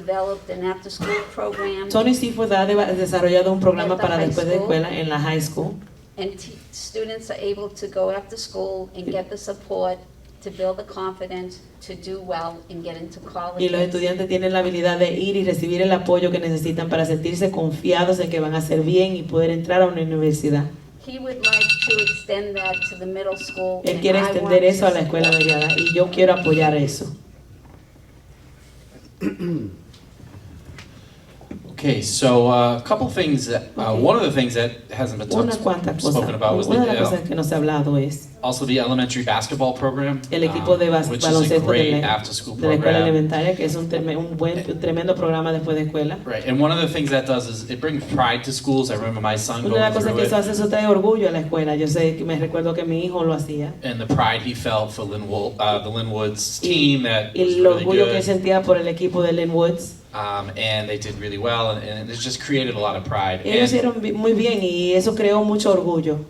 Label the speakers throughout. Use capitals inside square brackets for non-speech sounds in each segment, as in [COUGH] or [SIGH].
Speaker 1: developed an after-school program
Speaker 2: Tony Seafood ha deva- desarrollado un programa
Speaker 1: At the
Speaker 2: para
Speaker 1: high
Speaker 2: después de
Speaker 1: school.
Speaker 2: escuela en la high school.
Speaker 1: and te- students are able to go after school and get the support to build the confidence to do well and get into college.
Speaker 2: Y los estudiantes tienen la habilidad de ir y recibir el apoyo que necesitan para sentirse confiados en que van a hacer bien y poder entrar a una universidad.
Speaker 1: He would like to extend that to the middle school.
Speaker 2: Él
Speaker 1: and
Speaker 2: quiere
Speaker 1: I want
Speaker 2: extender
Speaker 1: to
Speaker 2: eso a la escuela
Speaker 1: support.
Speaker 2: mediada y yo quiero apoyar eso.
Speaker 3: Okay, so uh, a couple things that, uh,
Speaker 2: Okay.
Speaker 3: one of the things that hasn't been
Speaker 2: Unas
Speaker 3: talked-
Speaker 2: cuantas
Speaker 3: spoken
Speaker 2: cosas.
Speaker 3: about was
Speaker 2: Una de las
Speaker 3: the, uh,
Speaker 2: cosas que no se ha hablado es
Speaker 3: also the elementary basketball program.
Speaker 2: el equipo de
Speaker 3: um,
Speaker 2: bas-
Speaker 3: Which is a
Speaker 2: baloncesto de
Speaker 3: great
Speaker 2: la,
Speaker 3: after-school
Speaker 2: de la escuela
Speaker 3: program.
Speaker 2: elementaria, que es un, teme- un buen, un tremendo programa después de escuela.
Speaker 3: Right, and one of the things that does is it brings pride to schools. I remember my son
Speaker 2: Una de las cosas
Speaker 3: going through
Speaker 2: que eso
Speaker 3: it
Speaker 2: hace, eso trae orgullo a la escuela. Yo sé que me recuerdo que mi hijo lo hacía.
Speaker 3: and the pride he felt for Linwood, uh, the Linwoods
Speaker 2: Y-
Speaker 3: team that
Speaker 2: Y
Speaker 3: was
Speaker 2: el
Speaker 3: really
Speaker 2: orgullo que él
Speaker 3: good.
Speaker 2: sentía por el equipo de Lynn Woods.
Speaker 3: Um, and they did really well, and, and it just created a lot of pride.
Speaker 2: Ellos
Speaker 3: And
Speaker 2: hicieron bi- muy bien y eso creó mucho orgullo.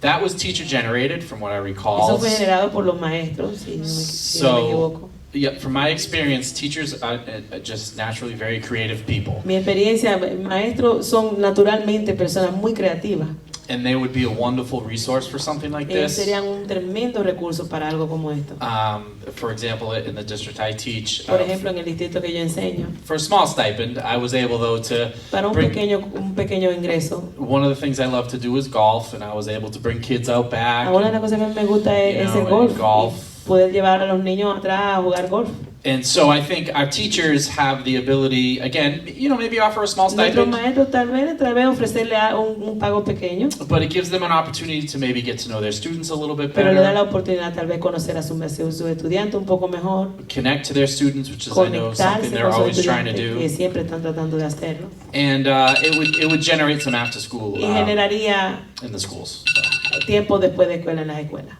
Speaker 3: that was teacher generated, from what I recall.
Speaker 2: Eso fue generado por los maestros, si no me, si no me
Speaker 3: Oh. So-
Speaker 2: equivoco.
Speaker 3: Yeah, from my experience, teachers are uh, uh, just naturally very creative people,
Speaker 2: Mi experiencia, maestros son naturalmente personas muy creativas.
Speaker 3: and they would be a wonderful resource for something like
Speaker 2: Ellos
Speaker 3: this.
Speaker 2: serían un tremendo recurso para algo como esto.
Speaker 3: Um, for example, in the district I teach,
Speaker 2: Por
Speaker 3: uh,
Speaker 2: ejemplo, en el distrito que yo enseño,
Speaker 3: for a small stipend, I was able though to
Speaker 2: para un
Speaker 3: bring-
Speaker 2: pequeño, un pequeño ingreso.
Speaker 3: One of the things I love to do is golf, and I was able to bring kids out back.
Speaker 2: Ahora una de las cosas que más me gusta
Speaker 3: Ah, You
Speaker 2: es, es el
Speaker 3: know, and
Speaker 2: golf,
Speaker 3: golf.
Speaker 2: y poder llevar a los niños atrás a jugar golf.
Speaker 3: And so I think our teachers have the ability, again, you know, maybe offer a small
Speaker 2: Nuestros
Speaker 3: stipend,
Speaker 2: maestros tal vez, tal vez ofrecerle a- un, un pago pequeño,
Speaker 3: but it gives them an opportunity to maybe get to know their students a little bit
Speaker 2: pero le da
Speaker 3: better,
Speaker 2: la oportunidad tal vez conocer a sus su, su estudiantes un poco mejor.
Speaker 3: connect to their students, which is I know
Speaker 2: conectarse
Speaker 3: something they're
Speaker 2: con sus
Speaker 3: always trying to
Speaker 2: estudiantes que
Speaker 3: do,
Speaker 2: siempre están tratando de hacerlo
Speaker 3: and uh, it would it would generate some after school
Speaker 2: y
Speaker 3: um,
Speaker 2: generaría
Speaker 3: in the schools.
Speaker 2: tiempo después de escuela en las escuelas.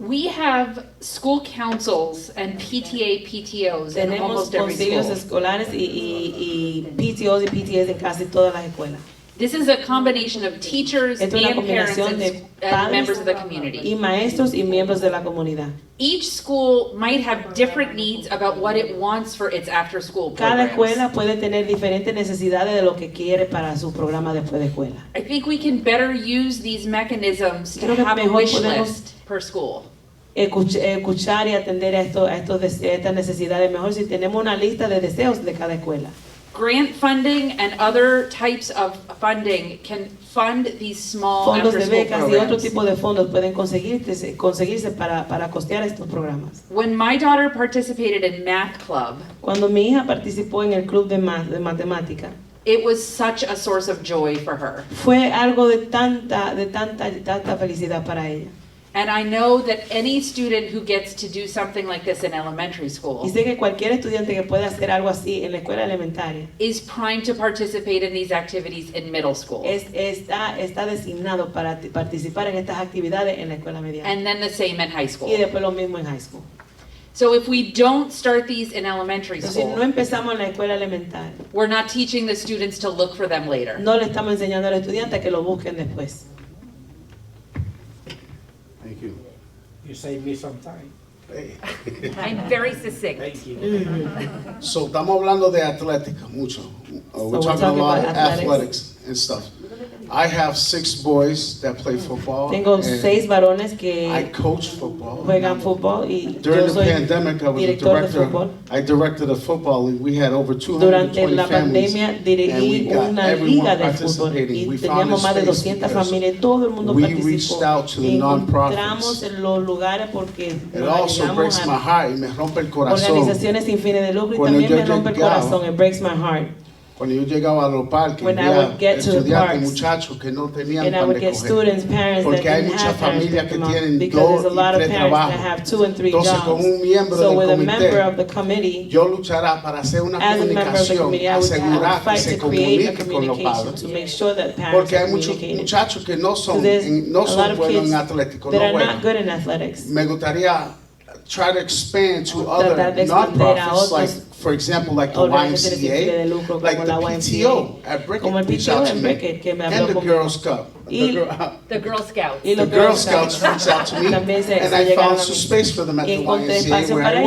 Speaker 4: We have school councils and PTA, PTOs in
Speaker 2: Tenemos
Speaker 4: almost every
Speaker 2: concilios
Speaker 4: school.
Speaker 2: escolares y, y, y PTOs y PTS en casi todas las escuelas
Speaker 4: This is a combination of teachers and
Speaker 2: Esto es una
Speaker 4: parents
Speaker 2: combinación
Speaker 4: and,
Speaker 2: de
Speaker 4: and
Speaker 2: padres.
Speaker 4: members of the community.
Speaker 2: y maestros y miembros de la comunidad.
Speaker 4: Each school might have different needs about what it wants for its after-school
Speaker 2: Cada
Speaker 4: programs.
Speaker 2: escuela puede tener diferentes necesidades de lo que quiere para su programa después de escuela.
Speaker 4: I think we can better use these mechanisms to
Speaker 2: Creo que
Speaker 4: have a
Speaker 2: mejor
Speaker 4: wish
Speaker 2: podemos-
Speaker 4: list per school.
Speaker 2: Escuch- escuchar y atender a, esto, a, estos, dese- a estas necesidades mejor si tenemos una lista de deseos de cada escuela.
Speaker 4: Grant funding and other types of funding can fund these small
Speaker 2: fondos de
Speaker 4: after-school
Speaker 2: becas y otro
Speaker 4: programs.
Speaker 2: tipo de fondos pueden conseguirse, conseguirse para, para costear estos programas.
Speaker 4: When my daughter participated in math club,
Speaker 2: Cuando mi hija participó en el club de, ma- de matemática,
Speaker 4: it was such a source of joy for her.
Speaker 2: fue algo de tanta, de tanta, de tanta felicidad para ella.
Speaker 4: And I know that any student who gets to do something like this in elementary
Speaker 2: Y
Speaker 4: school
Speaker 2: sé que cualquier estudiante que pueda hacer algo así en la escuela elementaria
Speaker 4: is primed to participate in these activities in middle school.
Speaker 2: es, está, está designado para ti- participar en estas actividades en la escuela media.
Speaker 4: And then the same in high
Speaker 2: Y
Speaker 4: school.
Speaker 2: después lo mismo en high school.
Speaker 4: So if we don't start these in elementary
Speaker 2: Entonces, si no
Speaker 4: school,
Speaker 2: empezamos en la escuela elemental,
Speaker 4: we're not teaching the students to look for them later.
Speaker 2: no le estamos enseñando al estudiante que lo busquen después.
Speaker 5: Thank you.
Speaker 6: You saved me some time.
Speaker 5: Hey,
Speaker 4: I'm very succinct.
Speaker 6: Thank you.
Speaker 5: So estamos hablando de atlética mucho. Uh,
Speaker 2: we're
Speaker 5: we're talking a
Speaker 2: talking
Speaker 5: lot of
Speaker 2: about athletics.
Speaker 5: athletics and stuff. I have six boys that play
Speaker 4: Oh,
Speaker 5: football.
Speaker 2: Tengo
Speaker 4: eh,
Speaker 5: and
Speaker 2: seis varones
Speaker 5: I
Speaker 2: que
Speaker 5: coach football.
Speaker 2: juegan fútbol y
Speaker 5: During
Speaker 2: yo
Speaker 5: the
Speaker 2: soy
Speaker 5: pandemic, I was a
Speaker 2: director de
Speaker 5: director.
Speaker 2: fútbol.
Speaker 5: I directed a football league. We had over
Speaker 2: Durante
Speaker 5: 220
Speaker 2: la
Speaker 5: families.
Speaker 2: pandemia
Speaker 5: and we
Speaker 2: dirigí
Speaker 5: got
Speaker 2: una
Speaker 5: everyone
Speaker 2: liga de fútbol
Speaker 5: participating.
Speaker 2: y
Speaker 5: We found
Speaker 2: teníamos
Speaker 5: a
Speaker 2: más de
Speaker 5: space
Speaker 2: 200
Speaker 5: because
Speaker 2: familias, todo el mundo
Speaker 5: we
Speaker 2: participó.
Speaker 5: reached out to the
Speaker 2: Y
Speaker 5: non-profits.
Speaker 2: encontramos en los lugares porque
Speaker 5: It
Speaker 2: nos
Speaker 5: also
Speaker 2: llegamos
Speaker 5: breaks
Speaker 2: a
Speaker 5: my heart y me rompe el corazón.
Speaker 2: organizaciones sin fines de lucro y
Speaker 5: Cuando
Speaker 2: también
Speaker 5: yo
Speaker 2: me rompe el
Speaker 5: llegaba,
Speaker 2: corazón, it breaks my heart.
Speaker 5: Cuando yo llegaba a los parques,
Speaker 2: When I
Speaker 5: veía
Speaker 2: would get to the
Speaker 5: estudiantes,
Speaker 2: parks,
Speaker 5: muchachos que no tenían
Speaker 2: And I
Speaker 5: pan
Speaker 2: would
Speaker 5: de
Speaker 2: get
Speaker 5: coger.
Speaker 2: students, parents that
Speaker 5: Porque hay
Speaker 2: didn't
Speaker 5: muchas
Speaker 2: have parents
Speaker 5: familias
Speaker 2: that
Speaker 5: que
Speaker 2: come out,
Speaker 5: tienen
Speaker 2: because
Speaker 5: dos
Speaker 2: there's a
Speaker 5: y
Speaker 2: lot of
Speaker 5: tres
Speaker 2: parents that
Speaker 5: trabajos.
Speaker 2: have two and three
Speaker 5: Entonces, con un miembro
Speaker 2: jobs. So
Speaker 5: del
Speaker 2: with a
Speaker 5: comité,
Speaker 2: member of the committee,
Speaker 5: Yo luchará para hacer una
Speaker 2: As a member of the
Speaker 5: comunicación,
Speaker 2: committee, I would uh,
Speaker 5: asegurar que
Speaker 2: fight
Speaker 5: se
Speaker 2: to create a
Speaker 5: comunique con los
Speaker 2: communication
Speaker 5: padres.
Speaker 2: to make sure that parents
Speaker 5: Porque
Speaker 2: are
Speaker 5: hay muchos
Speaker 2: communicating.
Speaker 5: muchachos que no
Speaker 2: So
Speaker 5: son,
Speaker 2: there's
Speaker 5: en- no
Speaker 2: a lot
Speaker 5: son
Speaker 2: of
Speaker 5: buenos
Speaker 2: kids
Speaker 5: en atlético,
Speaker 2: that
Speaker 5: no
Speaker 2: are not
Speaker 5: buenos.
Speaker 2: good in athletics.
Speaker 5: Me gustaría try to expand to
Speaker 2: Tratar
Speaker 5: other
Speaker 2: de expandir a
Speaker 5: nonprofits,
Speaker 2: otros
Speaker 5: like, for example, like the
Speaker 2: organizaciones sin fines de
Speaker 5: YMCA,
Speaker 2: lucro
Speaker 5: like
Speaker 2: como
Speaker 5: the
Speaker 2: la YMCA,
Speaker 5: PTO at
Speaker 2: como el
Speaker 5: Brickett, reached
Speaker 2: PTO
Speaker 5: out to
Speaker 2: en
Speaker 5: me,
Speaker 2: Beckett que me
Speaker 5: and
Speaker 2: habló
Speaker 5: the
Speaker 2: conmigo
Speaker 5: Girls Cup. The,
Speaker 2: Y-
Speaker 5: Girl-
Speaker 7: The Girl Scouts.
Speaker 2: Y
Speaker 5: the
Speaker 2: los
Speaker 5: Girl Scouts reached out to
Speaker 2: [LAUGHS]
Speaker 5: me,
Speaker 2: También se-
Speaker 5: and
Speaker 2: se
Speaker 5: I
Speaker 2: llegaron
Speaker 5: found
Speaker 2: a
Speaker 5: some
Speaker 2: mí.
Speaker 5: space for them at
Speaker 2: Y
Speaker 5: the
Speaker 2: encontré espacio
Speaker 5: YMCA where
Speaker 2: para
Speaker 5: I